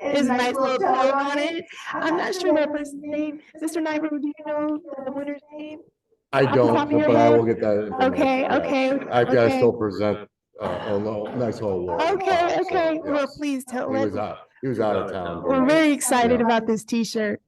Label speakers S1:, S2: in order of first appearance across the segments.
S1: It's
S2: Is nice little dog on it. I'm not sure that
S1: that
S2: person's name. Sister Nyberg, do you know the winner's name?
S3: I
S2: Off the top
S3: don't,
S2: of your
S3: but I
S2: head?
S3: will get that. information,
S2: Okay,
S3: yeah.
S2: okay,
S3: I've got to
S2: okay.
S3: still present uh, a lo- nice whole award.
S2: Okay,
S3: So,
S2: okay. Well,
S3: yes.
S2: please tell
S3: He was
S2: us.
S3: out, he was out of town.
S2: We're very excited about this T-shirt.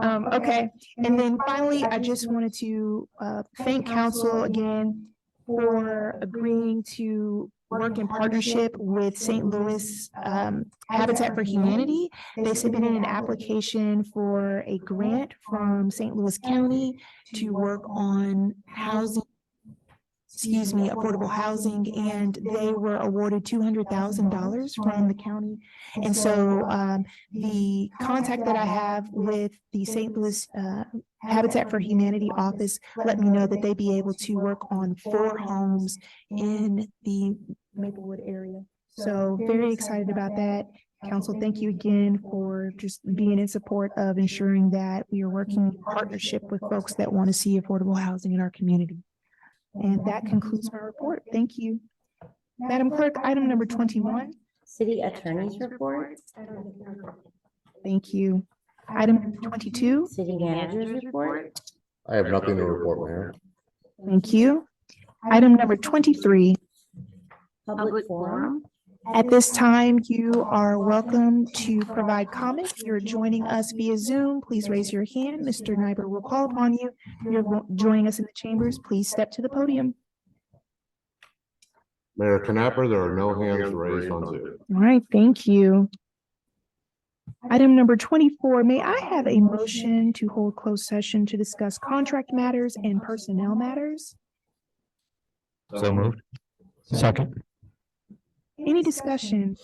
S2: Um, okay. And then finally, I just wanted to uh thank council again for agreeing to work in partnership with St. Louis um Habitat for Humanity. They submitted an application for a grant from St. Louis County to work on housing. Excuse me, affordable housing, and they were awarded two hundred thousand dollars from the county. And so um the contact that I have with the St. Louis uh Habitat for Humanity office let me know that they'd be able to work on four homes in the Maplewood area. So very excited about that. Council, thank you again for just being in support of ensuring that we are working in partnership with folks that want to see affordable housing in our community. And that concludes my report. Thank you. Madam Clerk, item number twenty-one.
S4: City Attorney's Report,
S2: Thank you. Item number twenty-two.
S4: City Manager's Report,
S3: I have nothing to report, Mayor.
S2: Thank you. Item number twenty-three.
S4: Public Forum,
S2: At this time, you are welcome to provide comments. If You're joining us via Zoom. Please raise your hand. Mr. Nyberg will call upon you. If You're wo- joining us in the chambers. Please step to the podium.
S3: Mayor Knapper, there are no hands raised on Zoom.
S2: All right, thank you. Item number twenty-four, may I have a motion to hold closed session to discuss contract matters and personnel matters?
S5: So moved. Second.
S2: Any discussion?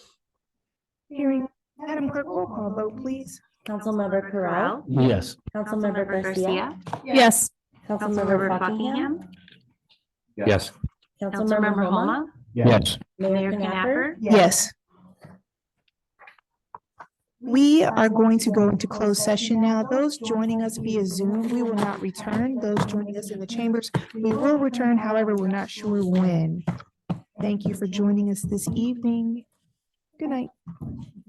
S2: Hearing, Madam Clerk, roll call vote, please.
S4: Councilmember Corral,
S5: Yes.
S4: Councilmember Garcia,
S2: Yes.
S4: Councilmember Buckingham,
S5: Yes.
S4: Councilmember Homa,
S5: Yes.
S4: Mayor Knapper.
S2: Yes. We are going to go into closed session now. Those joining us via Zoom, we will not return. Those joining us in the chambers, we will return, however, we're not sure when. Thank you for joining us this evening. Good night.